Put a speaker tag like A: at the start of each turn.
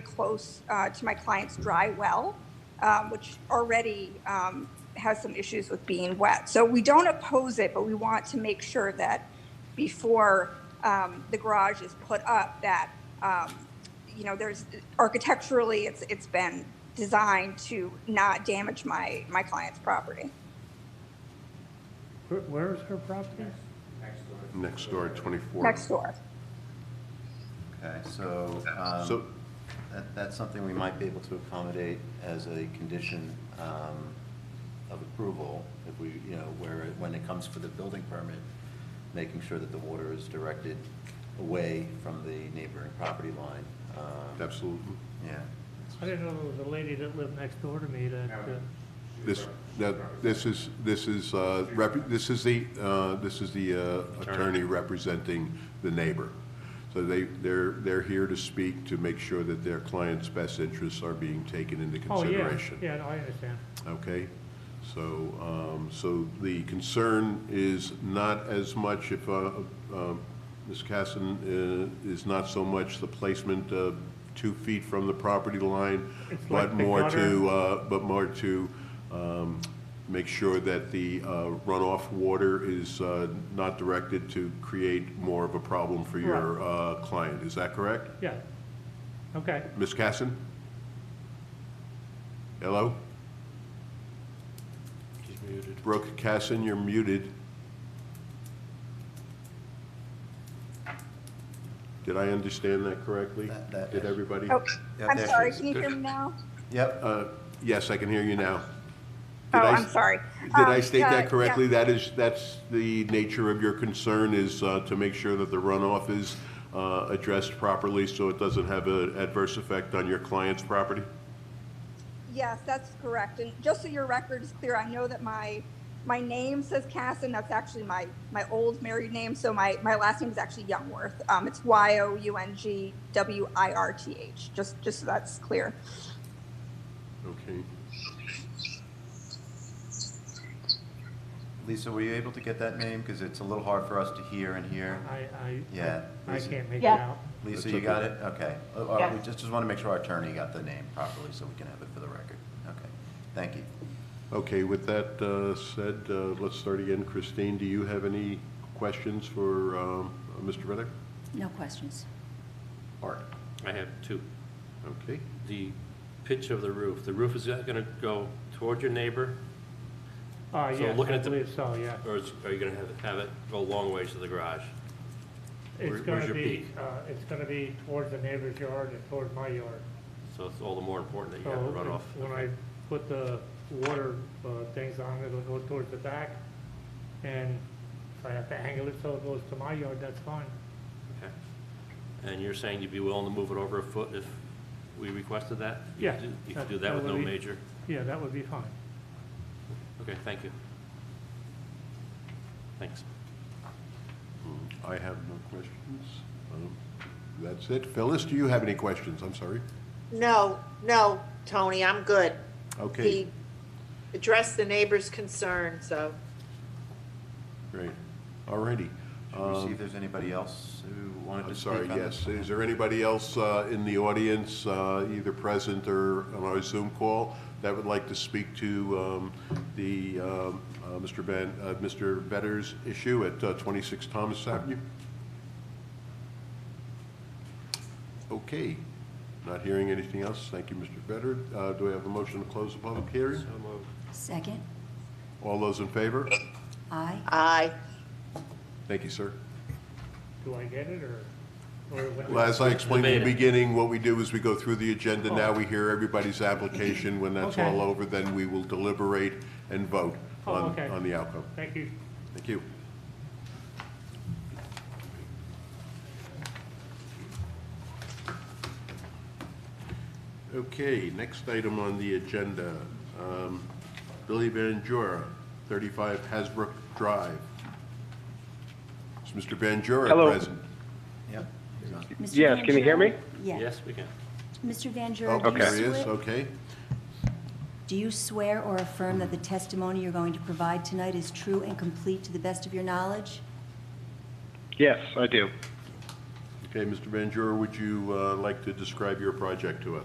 A: close uh, to my client's dry well, um, which already um, has some issues with being wet. So we don't oppose it, but we want to make sure that before um, the garage is put up, that, um, you know, there's, architecturally, it's, it's been designed to not damage my, my client's property.
B: Where- Where is her property?
C: Next door, 24.
A: Next door.
D: Okay, so,
C: So-
D: um, that, that's something we might be able to accommodate as a condition, um, of approval, if we, you know, where, it- when it comes for the building permit, making sure that the water is directed away from the neighboring property line. Um,
C: Absolutely.
D: Yeah,
B: I didn't know there was a lady that lived next door to me that, uh,
C: This, that, this is, this is, uh, rep- this is the, uh, this is the uh, attorney representing the neighbor. So they, they're, they're here to speak to make sure that their client's best interests are being taken into
B: oh, yeah,
C: consideration.
B: yeah, no, I understand.
C: Okay, so, um, so the concern is not as much if, uh, um, Ms. Casson, uh, is not so much the placement of two feet from the property line,
B: It's like
C: but
B: the
C: more
B: gutter.
C: to, uh, but more to, um, make sure that the uh, runoff water is, uh, not directed to create more of a problem for your, uh, client. Is that correct?
B: Yeah. Okay,
C: Ms. Casson? Hello? Brooke Casson, you're muted. Did I understand that correctly?
D: That- that-
C: Did
D: yes.
C: everybody?
A: Oh,
D: Yeah,
A: I'm
D: there she
A: sorry,
D: is.
A: can you hear me now?
D: yep,
C: Uh, Yes, I can hear you now.
A: Oh,
C: Did I-
A: I'm sorry.
C: Did I
A: Um,
C: state
A: uh, yeah.
C: that correctly? That is, that's the nature of your concern, is uh, to make sure that the runoff is uh, addressed properly so it doesn't have an adverse effect on your client's property?
A: Yes, that's correct. And just so your record is clear, I know that my, my name says Casson. That's actually my, my old married name. So my, my last name is actually Youngworth. Um, it's Y O U N G W I R T H, just, just so that's clear.
C: Okay.
D: Lisa, were you able to get that name? Because it's a little hard for us to hear and
B: I,
D: hear.
B: I.
D: Yeah,
B: I
D: Lisa.
B: can't make it
E: Yeah.
B: out.
D: Lisa,
C: That's
D: you got
C: okay.
D: it? Okay. Uh, uh, We
E: Yeah.
D: just, just want to make sure our attorney got the name properly, so we can have it for the record. Okay, thank you.
C: Okay, with that uh, said, uh, let's start again. Christine, do you have any questions for um, Mr. Reddick?
E: No questions.
C: Art.
F: I have two.
C: Okay,
F: The pitch of the roof, the roof is that going to go toward your neighbor,
B: Uh,
F: So
B: yes,
F: looking
B: I
F: at the-
B: believe so, yeah.
F: or is, are you going to have, have it go a long ways to the garage?
B: It's
F: Where-
B: gonna
F: where's your
B: be,
F: peak?
B: uh, it's gonna be towards the neighbor's yard and towards my yard.
F: So it's all the more important that you
B: So
F: have a runoff.
B: When I put the water uh, things on, it'll go towards the back. And if I have to angle it so it goes to my yard, that's fine.
F: Okay. And you're saying you'd be willing to move it over a foot if we requested that? You
B: Yeah,
F: could do- You
B: that-
F: could do
B: that
F: that with
B: would
F: no
B: be-
F: major?
B: Yeah, that would be fine.
F: Okay, thank you. Thanks.
C: I have no questions. Um, That's it. Phyllis, do you have any questions? I'm sorry.
G: No, no, Tony, I'm good.
C: Okay,
G: He addressed the neighbor's concern, so.
C: great. All righty.
D: Should we see if there's anybody else who wanted
C: I'm
D: to speak
C: sorry,
D: on this?
C: yes. Is there anybody else uh, in the audience, uh, either present or on our Zoom call, that would like to speak to um, the, um, uh, Mr. Ben, uh, Mr. Vedder's issue at uh, 26 Thomas Avenue? Okay, not hearing anything else. Thank you, Mr. Vedder. Uh, Do I have a motion to close the public hearing?
F: So moved.
E: Second,
C: All those in favor?
E: aye.
G: Aye.
C: Thank you, sir.
B: Do I get it or? or what-
C: Well, as I explained in the
F: Debated.
C: beginning, what we do is we go through the agenda, now we hear everybody's application, when that's
B: Oh. Okay.
C: all over, then we will deliberate and vote
B: Oh,
C: on,
B: okay.
C: on the outcome.
B: Thank you.
C: Thank you. Okay, next item on the agenda, um, Billy Van Jura, 35 Hasbrook Drive. Is Mr. Van Jura
H: Hello.
C: present?
D: Yep. he's on.
E: Mr.
H: Yes,
E: Van
H: can you hear
E: Jura?
H: me?
E: Yeah.
F: Yes, we can.
E: Mr. Van Jura,
C: Oh,
E: do
C: there he
E: you
C: is,
E: swear,
C: okay.
E: do you swear or affirm that the testimony you're going to provide tonight is true and complete to the best of your knowledge?
H: Yes, I do.
C: Okay, Mr. Van Jura, would you uh, like to describe your project to us?